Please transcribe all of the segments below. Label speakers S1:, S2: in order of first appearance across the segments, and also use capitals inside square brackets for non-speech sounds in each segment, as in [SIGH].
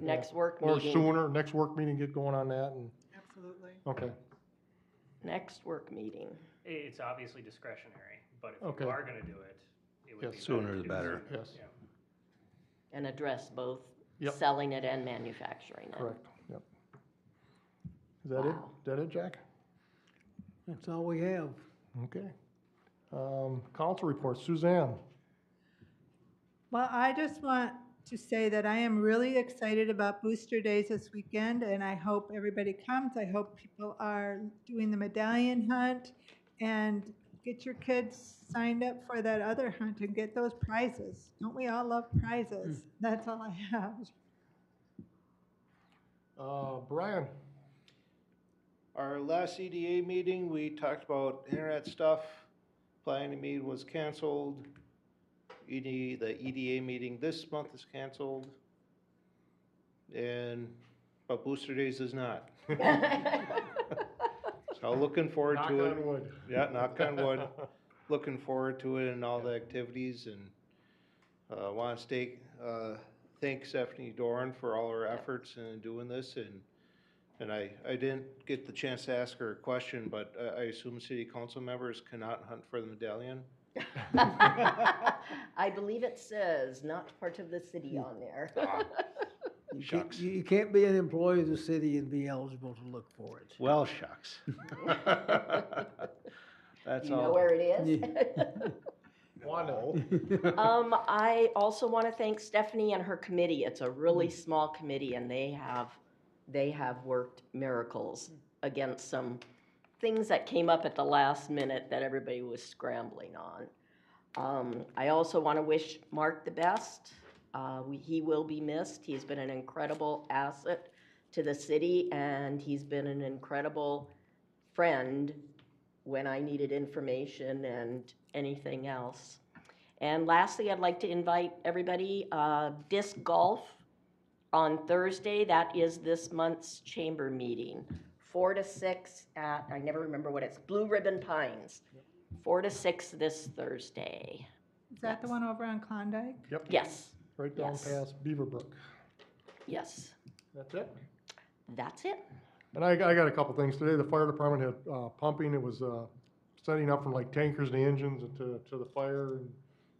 S1: next work
S2: Or
S1: meeting,
S2: sooner, next work meeting, get going on that and,
S3: Absolutely.
S2: okay,
S1: next work meeting.
S4: I- It's obviously discretionary, but if
S2: Okay.
S4: you are gonna do it, it
S2: Yes.
S4: would be. better
S5: Sooner
S4: to
S5: the
S4: do it
S5: better.
S4: sooner,
S2: Yes.
S4: yeah.
S1: And address both
S2: Yep.
S1: selling it and manufacturing it.
S2: correct, yep. Is that it?
S1: Wow.
S2: Is that it, Jack?
S6: That's all we have.
S2: Okay. Um, council report, Suzanne,
S3: Well, I just want to say that I am really excited about Booster Days this weekend, and I hope everybody comes. I hope people are doing the medallion hunt, and get your kids signed up for that other hunt and get those prizes. Don't we all love prizes? That's all I have.
S2: uh, Brian,
S7: Our last EDA meeting, we talked about internet stuff. Planning to meet was canceled. ED, the EDA meeting this month is canceled. And, but Booster Days is not. So looking forward
S2: knock
S7: to it.
S2: on wood.
S7: Yeah, knock on wood. Looking forward to it and all the activities and, uh, wanna stay, uh, thank Stephanie Doran for all her efforts in doing this and, and I, I didn't get the chance to ask her a question, but I, I assume city council members cannot hunt for
S1: [LAUGHS]
S7: the medallion?
S1: [LAUGHS] I believe it says not part of the
S2: Hmm.
S1: city on there.
S6: You can't-
S7: Shucks.
S6: You you can't be an employee of the city and be eligible to look for it.
S7: Well, shucks. [LAUGHS] That's
S1: You know where it is?
S2: [LAUGHS]
S1: [LAUGHS]
S2: Wanda,
S1: Um, I also want to thank Stephanie and her committee. It's a really small committee and they have, they have worked miracles against some things that came up at the last minute that everybody was scrambling on. Um, I also want to wish Mark the best. Uh, we, he will be missed. He's been an incredible asset to the city and he's been an incredible friend when I needed information and anything else. And lastly, I'd like to invite everybody, uh, disc golf on Thursday. That is this month's chamber meeting, four to six at, I never remember what it's, Blue Ribbon Pines. Four to six this Thursday.
S3: Is that the one over on Klondike?
S1: Yes,
S2: right down
S1: Yes.
S2: past Beaverbrook.
S1: yes,
S2: That's it?
S1: that's it.
S2: And I, I got a couple things. Today, the fire department had, uh, pumping, it was, uh, setting up from like tankers to engines to, to the fire. and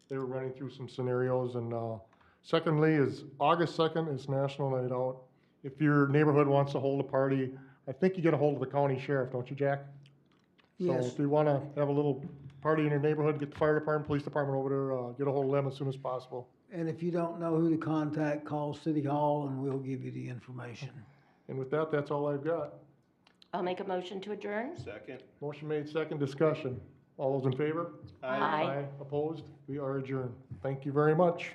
S2: They were running through some scenarios and, uh, secondly is August second is National Night Out. If your neighborhood wants to hold a party, I think you get a hold of the county sheriff, don't you, Jack? So
S6: Yes.
S2: if you wanna have a little party in your neighborhood, get the fire department, police department over there, uh, get a hold of them as soon as possible.
S6: And if you don't know who to contact, call City Hall and we'll give you the information.
S2: And with that, that's all I've got.
S1: I'll make a motion to adjourn.
S7: Second.
S2: Motion made, second discussion. All those in favor?
S1: Aye.
S2: Opposed? We are adjourned. Thank you very much.